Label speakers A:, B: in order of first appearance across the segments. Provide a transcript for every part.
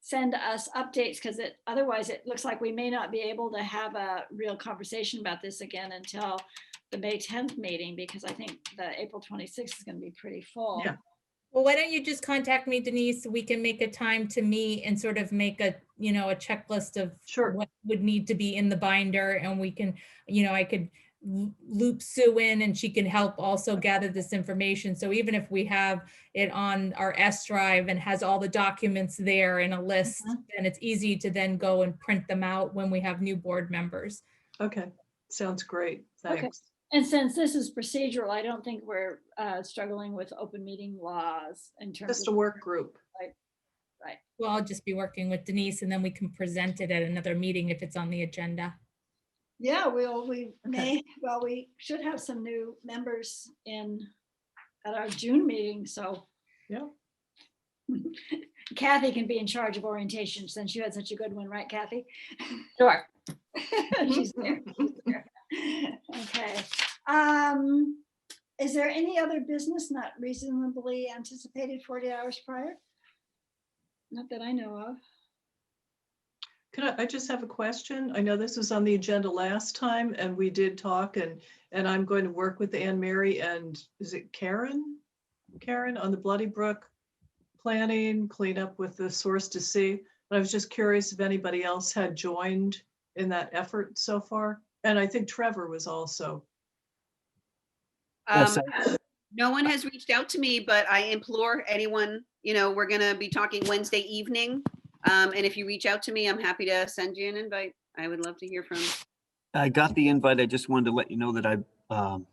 A: send us updates because it, otherwise it looks like we may not be able to have a real conversation about this again until the May 10th meeting, because I think the April 26th is going to be pretty full.
B: Yeah.
C: Well, why don't you just contact me, Denise? We can make a time to meet and sort of make a, you know, a checklist of
B: Sure.
C: what would need to be in the binder and we can, you know, I could l- loop Sue in and she can help also gather this information. So even if we have it on our S drive and has all the documents there in a list,
B: Mhm.
C: then it's easy to then go and print them out when we have new board members.
B: Okay, sounds great.
A: Okay.
B: Thanks.
A: And since this is procedural, I don't think we're uh, struggling with open meeting laws in terms
B: Just a
A: of,
B: work group.
C: Well, I'll just be working with Denise and then we can present it at another meeting if it's on the agenda.
A: yeah, we'll, we may,
B: Okay.
A: well, we should have some new members in, at our June meeting, so.
B: Yeah.
A: Kathy can be in charge of orientation since you had such a good one, right Kathy?
D: Sure.
A: She's there, she's there. Okay, um, is there any other business not reasonably anticipated forty hours prior? Not that I know of.
B: Could I, I just have a question? I know this was on the agenda last time and we did talk and, and I'm going to work with Anne Mary and is it Karen? Karen on the Bloody Brook planning, cleanup with the source to sea. And I was just curious if anybody else had joined in that effort so far. And I think Trevor was also.
E: Yes,
D: Um, No one has reached out to me, but I implore anyone, you know, we're gonna be talking Wednesday evening. Um, and if you reach out to me, I'm happy to send you an invite. I would love to hear from.
E: I got the invite. I just wanted to let you know that I, um,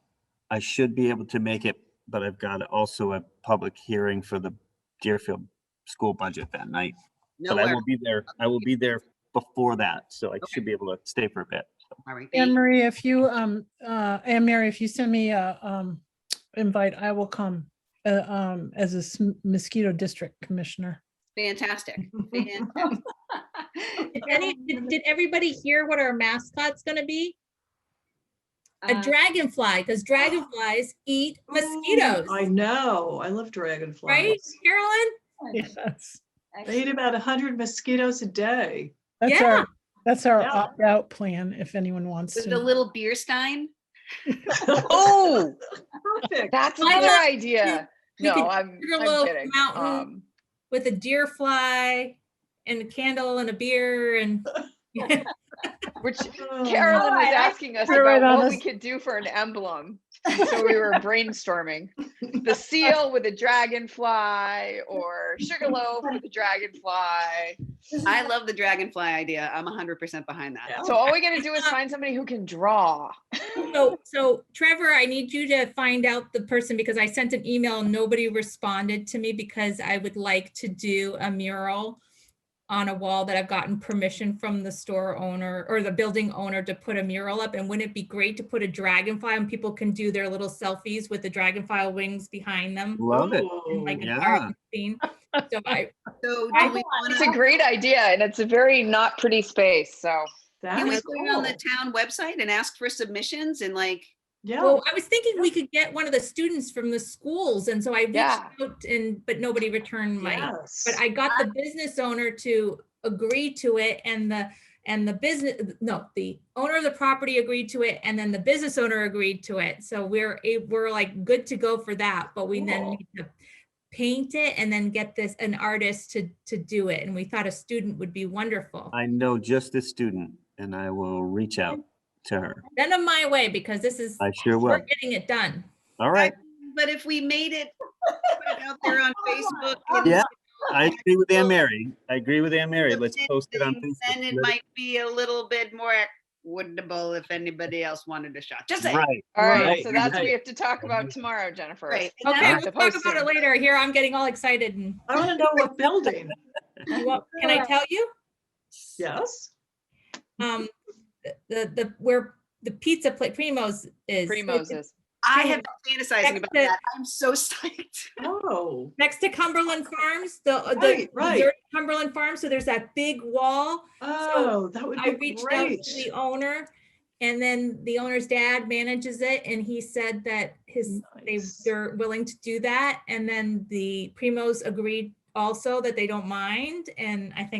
E: I should be able to make it, but I've got also a public hearing for the Deerfield school budget that night. But I
D: nowhere.
E: will be there, I will be there before that, so I should be able to stay for a bit.
D: All right,
F: Anne
D: thank-
F: Marie, if you, um, uh, Anne Mary, if you send me a, um, invite, I will come, uh, um, as a s- mosquito district commissioner.
D: Fantastic. Fan-
C: Did any, did, did everybody hear what our mascot's gonna be? A
A: Uh,
C: dragonfly, because dragonflies eat mosquitoes,
B: Oh, I know. I love dragonflies.
C: right, Carolyn?
F: Yes,
B: They eat
A: Uh, excellent.
B: about 100 mosquitoes a day.
F: that's our, that's our
B: Yeah.
F: opt-out plan, if anyone wants
D: With the
F: to.
D: little beer stein.
G: Oh,
B: Perfect.
G: that's
C: Why
G: another
C: not?
G: idea.
C: we could
G: No, I'm,
C: do a little
G: I'm kidding.
C: mountain.
G: Um,
C: With a deer fly and a candle and a beer and.
G: which
B: Oh,
G: Carolyn was
A: Alright, I-
G: asking us
F: You're right
G: about
F: on
G: what we
F: us.
G: could do for an emblem. So we were brainstorming the seal with a dragonfly or sugarloaf with a dragonfly.
A: This is
D: I love the dragonfly idea. I'm hundred percent behind that.
B: Yeah.
G: So all we gotta do is find somebody who can draw.
C: So, so Trevor, I need you to find out the person because I sent an email, and nobody responded to me because I would like to do a mural on a wall that I've gotten permission from the store owner or the building owner to put a mural up. And wouldn't it be great to put a dragonfly and people can do their little selfies with the dragonfly wings behind them?
E: Love it.
B: Oh,
C: in Like an
E: yeah.
C: art scene. So I,
D: So
C: I
D: do we want
G: It's a
D: to,
G: great idea and it's a very not pretty space, so.
B: that
D: can we
B: is
D: put it on the
B: cool.
D: town website and ask for submissions and like,
B: Yeah,
C: well, I was thinking we could get one of the students from the schools. And so I reached
G: Yeah.
C: out and, but nobody returned my
B: yes.
C: But I got the business owner to agree to it and the, and the business, no, the owner of the property agreed to it and then the business owner agreed to it. So we're, a- we're like good to go for that, but we then
B: Cool.
C: need to paint it and then get this, an artist to, to do it. And we thought a student would be wonderful.
E: I know just this student and I will reach out to her.
C: Send them my way because this is,
E: I sure
C: we're
E: will.
C: getting it done.
E: All right.
D: but if we made it put it out there on Facebook. and-
E: Yeah, I agree with Anne Mary. I agree with Ann Mary.
D: the
E: Let's
D: bid
E: post it on
D: thing, Then
E: Facebook.
D: it might be a little bit more equitable if anybody else wanted a shot. Just saying.
E: Right.
G: All
E: Right,
G: right, so that's what
E: right.
G: we have to talk about tomorrow, Jennifer.
D: Right. And
C: Okay,
D: that's-
C: we'll
G: the
C: talk about it
G: posting.
C: later. Here, I'm getting all excited and,
B: I want to know what building.
C: you want- can I tell you?
B: Yes.
C: um the the where the pizza plate primos is
G: Primo's is.
D: I have been fantasizing about
C: Exit.
D: that. I'm so psyched.
B: Oh,
C: next to cumberland farms the uh, the
B: Right, right.
C: there's cumberland farms so there's that big wall
B: oh, that would
C: i
B: be
C: reached out
B: great.
C: to the owner and then the owner's dad manages it and he said that his they
B: Nice.
C: they're willing to do that and then the primos agreed also that they don't mind and i think